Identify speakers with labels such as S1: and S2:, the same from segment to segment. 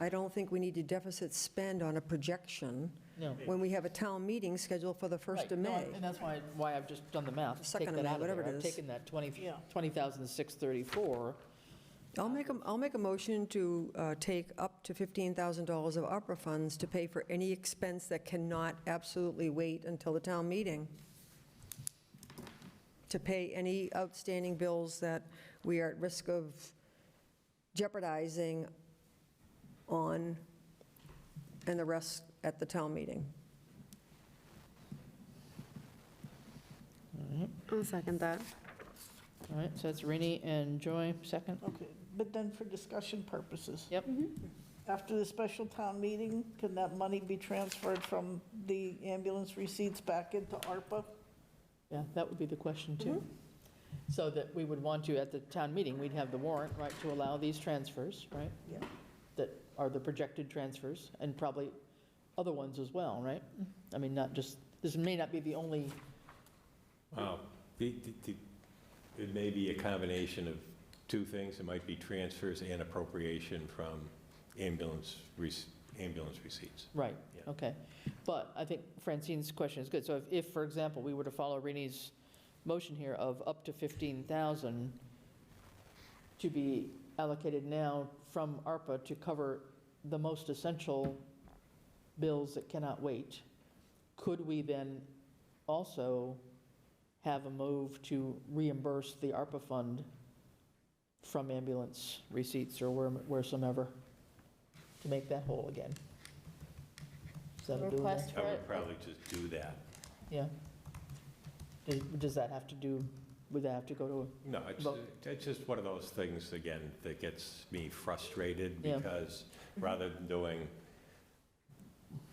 S1: I don't think we need to deficit spend on a projection
S2: No.
S1: when we have a town meeting scheduled for the 1st of
S2: Right, no,
S1: May.
S2: And that's why, why I've just done the math.
S1: Second of
S2: Take that
S1: May,
S2: out of
S1: whatever
S2: there.
S1: it
S2: I've
S1: is.
S2: taken that 20
S3: Yeah.
S2: 20,634,
S1: I'll make, a will make a motion to uh, take up to $15,000 of opera funds to pay for any expense that cannot absolutely wait until the town meeting, to pay any outstanding bills that we are at risk of jeopardizing on, and the rest at the town meeting.
S4: I'll second that.
S2: all right, so that's Rini and Joy, second.
S3: Okay, but then for discussion purposes.
S2: Yep.
S3: After the special town meeting, can that money be transferred from the ambulance receipts back into ARPA?
S2: Yeah, that would be the question, too.
S1: Mm-hmm.
S2: So that we would want to, at the town meeting, we'd have the warrant, right, to allow these transfers, right?
S3: Yeah.
S2: That are the projected transfers, and probably other ones as well, right? I mean, not just, this may not be the only,
S5: Wow. The- the- the- It may be a combination of two things. It might be transfers and appropriation from ambulance, rec- ambulance receipts.
S2: right,
S5: Yeah.
S2: okay. But I think Francine's question is good. So if, if, for example, we were to follow Rini's motion here of up to 15,000 to be allocated now from ARPA to cover the most essential bills that cannot wait, could we then also have a move to reimburse the ARPA fund from ambulance receipts or where- wheresoever to make that whole again? Is that a doable?
S6: Request
S5: I
S6: for
S5: would
S6: it.
S5: probably just do that.
S2: Yeah. Does- Does that have to do, would that have to go to a
S5: No, it's,
S2: Well-
S5: it's just one of those things, again, that gets me frustrated
S2: Yeah.
S5: because rather than doing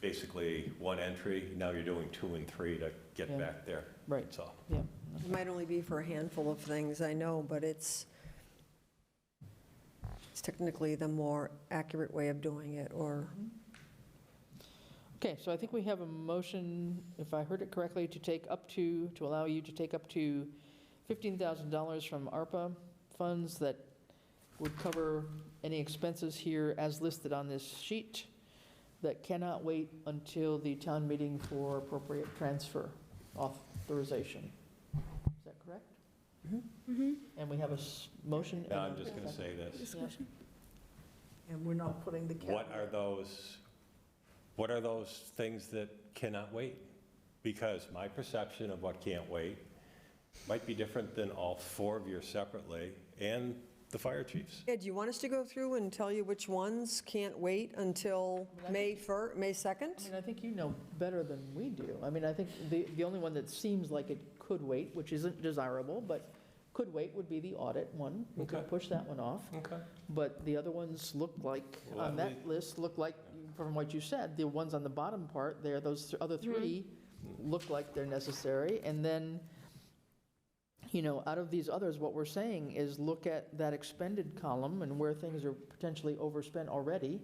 S5: basically one entry, now you're doing two and three to get
S2: Yeah.
S5: back there.
S2: Right.
S5: That's all.
S2: Yeah,
S1: It might only be for a handful of things, I know, but it's, it's technically the more accurate way of doing it, or
S2: okay, so I think we have a motion, if I heard it correctly, to take up to, to allow you to take up to $15,000 from ARPA funds that would cover any expenses here as listed on this sheet that cannot wait until the town meeting for appropriate transfer authorization. Is that correct? Oh.
S6: Mm-hmm.
S2: And we have a s- motion? and
S5: Now,
S2: a
S5: I'm just going to say this.
S2: second. Yeah.
S3: And we're not putting the cap.
S5: What are those, what are those things that cannot wait? Because my perception of what can't wait might be different than all four of yours separately and the fire chiefs.
S1: Ed, do you want us to go through and tell you which ones can't wait until May 1st, May
S2: I
S1: 2nd?
S2: mean, I think you know better than we do. I mean, I think the, the only one that seems like it could wait, which isn't desirable, but could wait would be the audit one. We could
S5: Okay.
S2: push that one off.
S5: Okay.
S2: But the other ones look like,
S5: Well,
S2: on
S5: that
S2: that list, look like, from what you said, the ones on the bottom part there, those th- other three look like they're necessary. And then, you know, out of these others, what we're saying is look at that expended column and where things are potentially overspent already,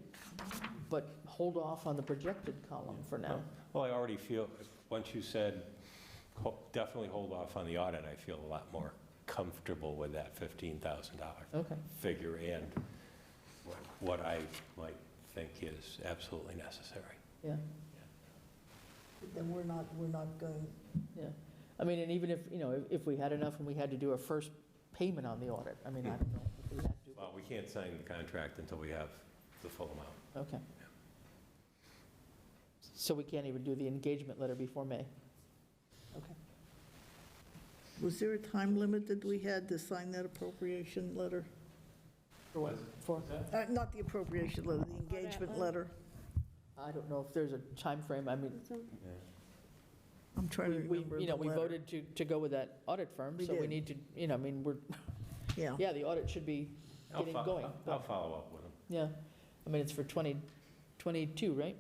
S2: but hold off on the projected column for now.
S5: Well, I already feel, once you said, ho- definitely hold off on the audit, I feel a lot more comfortable with that $15,000
S2: Okay,
S5: figure and what- what I might think is absolutely necessary.
S2: yeah,
S3: Then we're not, we're not going,
S2: yeah. I mean, and even if, you know, if- if we had enough and we had to do a first payment on the audit, I mean, I don't know if we had to.
S5: Well, we can't sign the contract until we have the full amount.
S2: Okay. So we can't even do the engagement letter before May? Okay.
S3: was there a time limit that we had to sign that appropriation letter?
S2: For what? For,
S3: Uh, Not the appropriation letter, the engagement letter.
S2: I don't know if there's a time frame. I mean,
S3: I'm trying to
S2: we, we-
S3: remember
S2: you know,
S3: the
S2: we
S3: letter.
S2: voted to, to go with that audit firm,
S3: We
S2: so we
S3: did.
S2: need to, you know, I mean, we're,
S3: Yeah.
S2: yeah, the audit should be
S5: I'll
S2: getting
S5: fo-
S2: going.
S5: I'll follow up with them.
S2: Yeah, I mean, it's for 2022, right?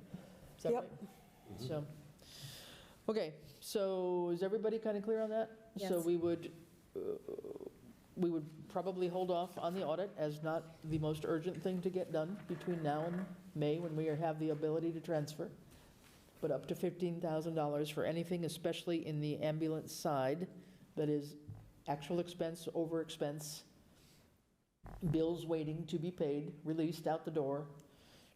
S2: Is that
S1: Yep.
S2: right?
S5: Mm-hmm.
S2: So, okay, so is everybody kind of clear on that? So
S6: Yes.
S2: we would, uh, we would probably hold off on the audit as not the most urgent thing to get done between now and May, when we have the ability to transfer, but up to $15,000 for anything, especially in the ambulance side, that is actual expense, over expense, bills waiting to be paid, released out the door,